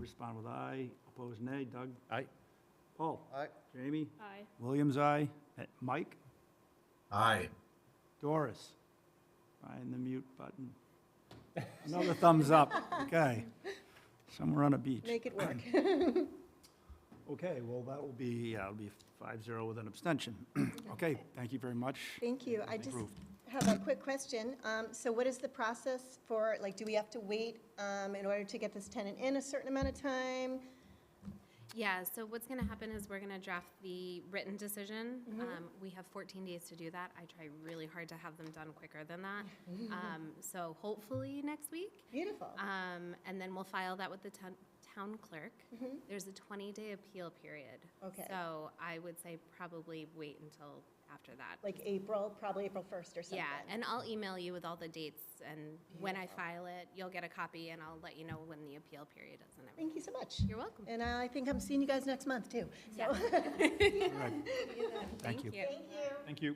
respond with aye. Opposed, nay. Doug? Aye. Paul? Aye. Jamie? Aye. Williams, aye. Uh, Mike? Aye. Doris? Find the mute button. Another thumbs up. Okay. Somewhere on a beach. Make it work. Okay, well, that will be, yeah, it'll be five zero with an abstention. Okay, thank you very much. Thank you. I just Approved. have a quick question. Um, So what is the process for, like, do we have to wait um, in order to get this tenant in a certain amount of time? Yeah, so what's gonna happen is we're gonna draft the written decision. Mm-hmm. Um, we have fourteen days to do that. I try really hard to have them done quicker than that. Um, so hopefully next week. Beautiful. Um, and then we'll file that with the town, town clerk. There's a twenty-day appeal period. Mm-hmm. Okay. So I would say probably wait until after that. Like April, probably April 1st or something. Yeah, and I'll email you with all the dates and when I file it, you'll get a copy and I'll let you know when the appeal period is and everything. Thank you so much. You're welcome. And I think I'm seeing you guys next month, too. So, Thank you. thank you. Thank you.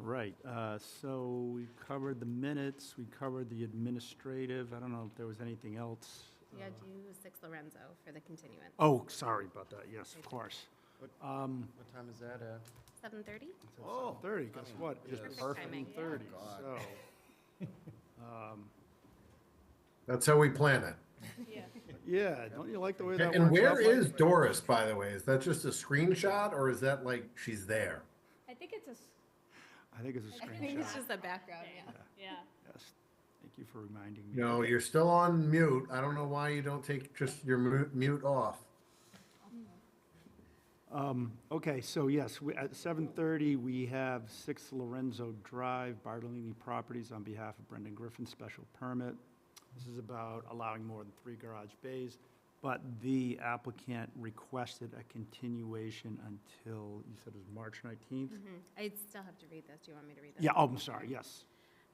All right, uh, so we covered the minutes, we covered the administrative, I don't know if there was anything else. Yeah, do six Lorenzo for the continuance. Oh, sorry about that, yes, of course. What time is that at? Seven thirty? Oh, thirty, guess what? It's Perfect perfect, timing. Yeah. Oh, thirty, God. so. That's how we plan it. Yeah, don't you like the way that works out? And where Mike? is Doris, by the way? Is that just a screenshot or is that like she's there? I think it's a, s- I think it's a I think screenshot, it's just the background, yeah. yeah. yes. Thank you for reminding me. No, you're still on mute. I don't know why you don't take just your mu- mute off. Um, Okay, so yes, we- at 7:30, we have 6 Lorenzo Drive, Bartolini Properties, on behalf of Brendan Griffin, special permit. This is about allowing more than three garage bays, but the applicant requested a continuation until, you said it was March 19th? I still have to read this. Do you want me to read this? Yeah, oh, I'm sorry, yes.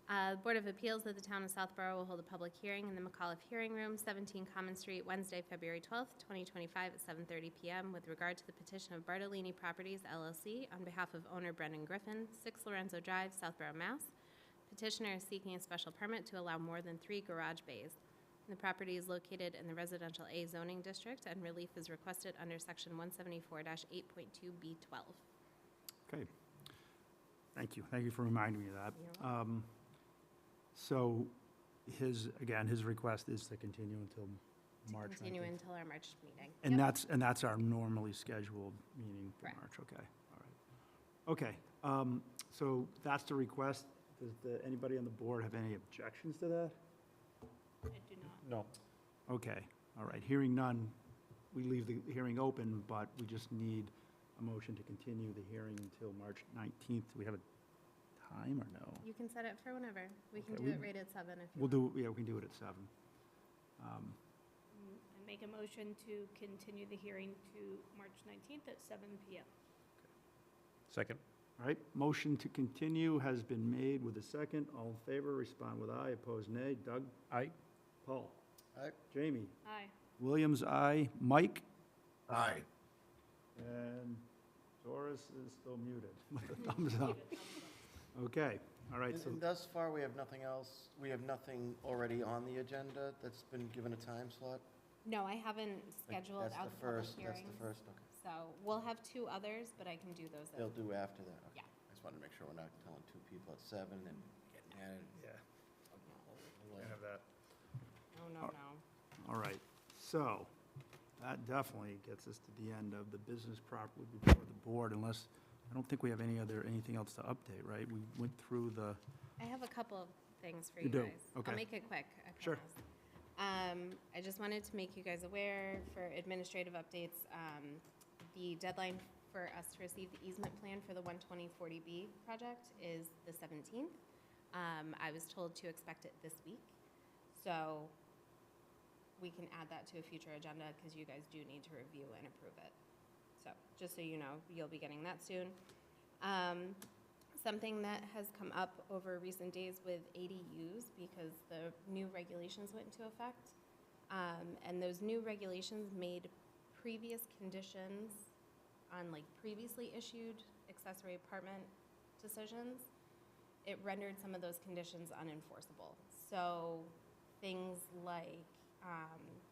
Uh, Board of Appeals of the Town of Southborough will hold a public hearing in the McAuliffe Hearing Room, 17 Common Street, Wednesday, February 12th, 2025, at 7:30 PM, with regard to the petition of Bartolini Properties LLC on behalf of owner Brendan Griffin, 6 Lorenzo Drive, Southborough, Mass. Petitioner is seeking a special permit to allow more than three garage bays. The property is located in the residential A zoning district, and relief is requested under Section 174-8.2B12. Okay. Thank you. Thank you for reminding me of that. Um, So his, again, his request is to continue until March 19th. Continue until our March meeting. And that's, and that's our normally scheduled meeting for Correct. March, okay, all right. Okay, um, so that's the request. Does the, anybody on the board have any objections to that? I do not. No. Okay, all right, hearing none, we leave the hearing open, but we just need a motion to continue the hearing until March 19th. Do we have a time or no? You can set it for whenever. We can Okay, do we- it right at seven if you We'll want. do, yeah, we can do it at seven. Um, I make a motion to continue the hearing to March 19th at seven PM. Second. All right, motion to continue has been made with a second. All in favor, respond with aye, opposed nay. Doug? Aye. Paul? Aye. Jamie? Aye. Williams, aye. Mike? Aye. And Doris is still muted. with a Thumbs up. Okay, all right, And- so, And thus far, we have nothing else, we have nothing already on the agenda that's been given a time slot? No, I haven't Like, scheduled out the public That's the first, that's hearings. the first, okay. So we'll have two others, but I can do those. at- They'll do after that, okay. Yeah. I just wanted to make sure we're not telling two people at seven and getting at it. yeah, We'll, uh, No, no, All- no. all right. So, that definitely gets us to the end of the business properly before the board, unless, I don't think we have any other, anything else to update, right? We went through the, I have a couple of things for You you do? guys. Okay. I'll make it quick, I Sure. promise. Um, I just wanted to make you guys aware for administrative updates, um, the deadline for us to receive the easement plan for the 12040B project is the 17th. Um, I was told to expect it this week, so we can add that to a future agenda because you guys do need to review and approve it. So, just so you know, you'll be getting that soon. Um, something that has come up over recent days with ADUs because the new regulations went into effect. Um, and those new regulations made previous conditions on like previously issued accessory apartment decisions, it rendered some of those conditions unenforceable. So things like, um,